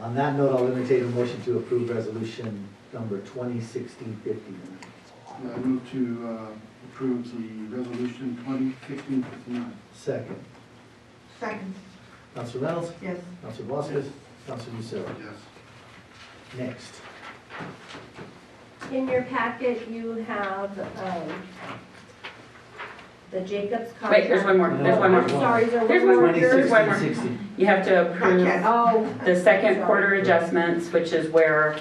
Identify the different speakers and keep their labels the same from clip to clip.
Speaker 1: On that note, I'll entertain a motion to approve resolution number twenty sixteen fifty-nine.
Speaker 2: I move to uh, approve the resolution twenty fifteen fifty-nine.
Speaker 1: Second,
Speaker 3: Second,
Speaker 1: Council Reynolds,
Speaker 3: yes.
Speaker 1: Council Voskis, Council Lucero.
Speaker 2: Yes.
Speaker 1: Next,
Speaker 4: In your packet, you have, um, the Jacobs contract.
Speaker 5: Wait, there's one more, there's one more.
Speaker 4: I'm sorry, is there
Speaker 5: There's
Speaker 4: one more?
Speaker 1: twenty
Speaker 5: There's one
Speaker 1: sixteen
Speaker 5: more.
Speaker 1: sixty.
Speaker 5: You have to
Speaker 3: Not
Speaker 5: approve
Speaker 3: yet.
Speaker 4: Oh.
Speaker 5: the second
Speaker 4: sorry.
Speaker 5: quarter adjustments, which is where,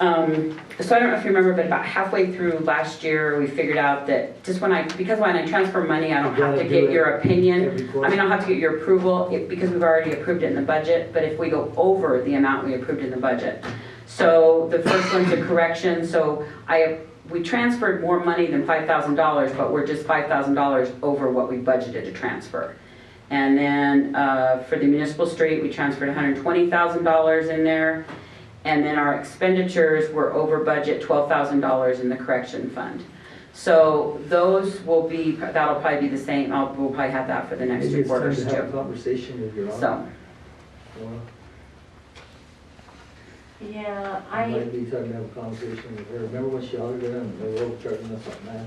Speaker 5: um, so I don't know if you remember, but about halfway through last year, we figured out that just when I, because when I transfer money, I don't
Speaker 1: You
Speaker 5: have
Speaker 1: gotta
Speaker 5: to
Speaker 1: do
Speaker 5: get
Speaker 1: it
Speaker 5: your opinion.
Speaker 1: Every
Speaker 5: I mean,
Speaker 1: quarter.
Speaker 5: I'll have to get your approval if- because we've already approved it in the budget, but if we go over the amount we approved in the budget. So the first one's a correction, so I, we transferred more money than five thousand dollars, but we're just five thousand dollars over what we budgeted to transfer. And then uh, for the municipal street, we transferred hundred twenty thousand dollars in there. And then our expenditures were over budget, twelve thousand dollars in the correction fund. So those will be, that'll probably be the same, I'll, we'll probably have that for the next
Speaker 1: Maybe
Speaker 5: two
Speaker 1: it's time
Speaker 5: quarters
Speaker 1: to have a
Speaker 5: too.
Speaker 1: conversation with your auditor.
Speaker 5: So,
Speaker 4: Yeah,
Speaker 1: I
Speaker 4: I,
Speaker 1: might be time to have a conversation with her. Remember when she audited them, they were charging us on that?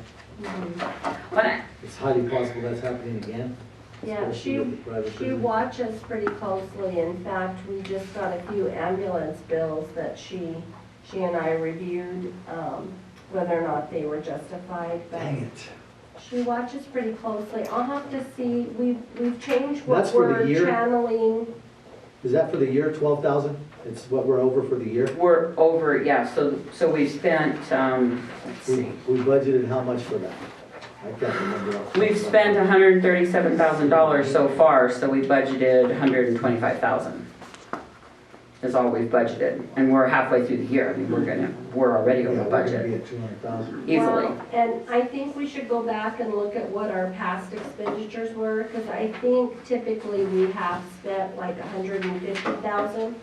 Speaker 4: mm,
Speaker 5: but I-
Speaker 1: It's highly possible that's happening again.
Speaker 4: yeah,
Speaker 1: especially
Speaker 4: she,
Speaker 1: with the private
Speaker 4: she
Speaker 1: business.
Speaker 4: watches pretty closely. In fact, we just got a few ambulance bills that she, she and I reviewed, um, whether or not they were justified, but
Speaker 1: Dang it.
Speaker 4: she watches pretty closely. I'll have to see, we've, we've changed
Speaker 1: That's
Speaker 4: what
Speaker 1: for the
Speaker 4: we're
Speaker 1: year?
Speaker 4: channeling.
Speaker 1: Is that for the year, twelve thousand? It's what we're over for the year?
Speaker 5: we're over, yeah, so, so we spent, um, let's
Speaker 1: We
Speaker 5: see.
Speaker 1: we budgeted how much for that? I can't remember. off the top of my
Speaker 5: We've spent
Speaker 1: head.
Speaker 5: hundred and thirty-seven thousand dollars so far, so we budgeted hundred and twenty-five thousand. Is all we've budgeted, and we're halfway through the year, I mean, we're gonna, we're already
Speaker 1: Yeah,
Speaker 5: over
Speaker 1: we're gonna
Speaker 5: budget,
Speaker 1: be at two hundred thousand.
Speaker 5: easily.
Speaker 4: Well, And I think we should go back and look at what our past expenditures were, because I think typically we have spent like a hundred and fifty thousand.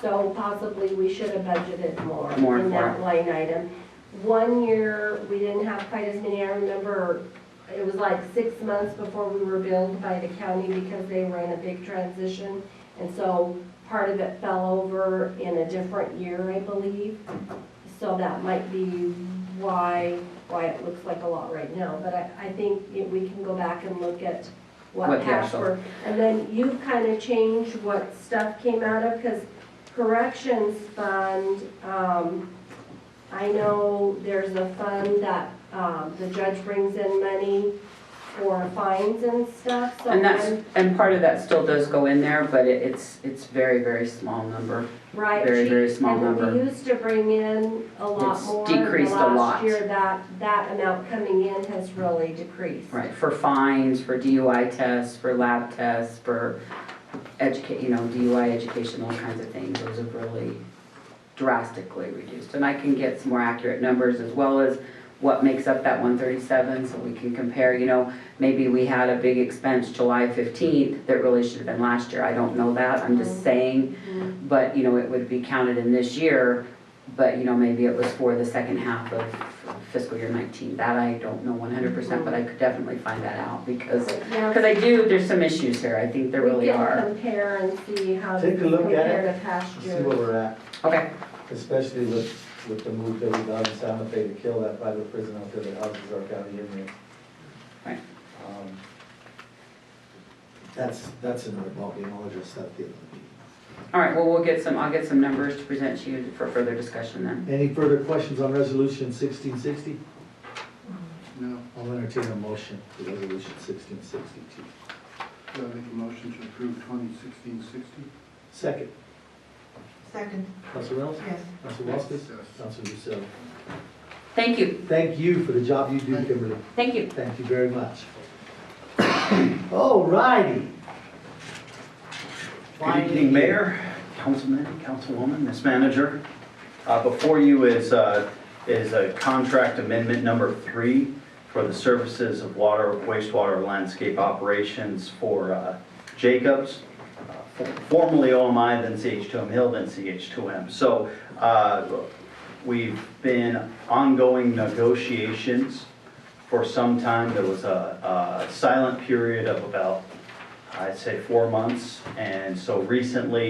Speaker 4: So possibly we should have budgeted more
Speaker 5: More
Speaker 4: in
Speaker 5: for
Speaker 4: that line item. One year, we didn't have quite as many, I remember, it was like six months before we were billed by the county because they were in a big transition. And so part of it fell over in a different year, I believe. So that might be why, why it looks like a lot right now. But I, I think it- we can go back and look at
Speaker 5: What
Speaker 4: what
Speaker 5: the
Speaker 4: cash
Speaker 5: actual-
Speaker 4: were. And then you've kind of changed what stuff came out of, because corrections fund, um, I know there's a fund that, um, the judge brings in money for fines and stuff, so.
Speaker 5: And
Speaker 4: I'm-
Speaker 5: that's, and part of that still does go in there, but it- it's, it's very, very small number.
Speaker 4: Right.
Speaker 5: very,
Speaker 4: she-
Speaker 5: very small
Speaker 4: And
Speaker 5: number.
Speaker 4: we used to bring in a lot
Speaker 5: It's
Speaker 4: more. The
Speaker 5: decreased a lot.
Speaker 4: Last year, that, that amount coming in has really decreased.
Speaker 5: Right, for fines, for DUI tests, for lab tests, for educate, you know, DUI education, all kinds of things, those have really drastically reduced. And I can get some more accurate numbers as well as what makes up that one thirty-seven, so we can compare, you know, maybe we had a big expense July fifteenth that really should have been last year, I don't know that, I'm
Speaker 4: Mm-hmm.
Speaker 5: just saying. But, you know, it would be counted in this year, but, you know, maybe it was for the second half of fiscal year nineteen, that I don't know one hundred percent, but I could definitely find that out, because,
Speaker 4: Now,
Speaker 5: because I do, there's some issues here, I think there
Speaker 4: we
Speaker 5: really
Speaker 4: can
Speaker 5: are.
Speaker 4: compare and see how
Speaker 1: Take
Speaker 4: this
Speaker 1: a look at
Speaker 4: compared to past
Speaker 1: See where
Speaker 4: years.
Speaker 1: we're at,
Speaker 5: Okay,
Speaker 6: especially with, with the move that we got in Santa Fe to kill that private prison out there that houses our county inmates.
Speaker 5: Right.
Speaker 6: Um,
Speaker 1: that's, that's another ballgame, I'll address that at the end of the meeting.
Speaker 5: all right, well, we'll get some, I'll get some numbers to present to you for further discussion then.
Speaker 1: Any further questions on resolution sixteen sixty?
Speaker 2: No,
Speaker 1: I'll entertain a motion for resolution sixteen sixty-two.
Speaker 2: do I make a motion to approve twenty sixteen sixty?
Speaker 1: Second,
Speaker 3: Second,
Speaker 1: Council Reynolds,
Speaker 3: yes.
Speaker 1: Council Voskis,
Speaker 2: Yes.
Speaker 1: Council Lucero.
Speaker 5: Thank you,
Speaker 1: Thank you for the job you do, Kimberly.
Speaker 5: thank you.
Speaker 1: Thank you very much. All righty.
Speaker 7: Good evening, Mayor, Councilman, Councilwoman, Miss Manager. Uh, Before you is, uh, is a contract amendment number three for the services of water, wastewater, landscape operations for uh, Jacobs, uh, formerly OMI, then CH2M Hill, then CH2M. So uh, we've been ongoing negotiations for some time. There was a a silent period of about I'd say four months. And so recently,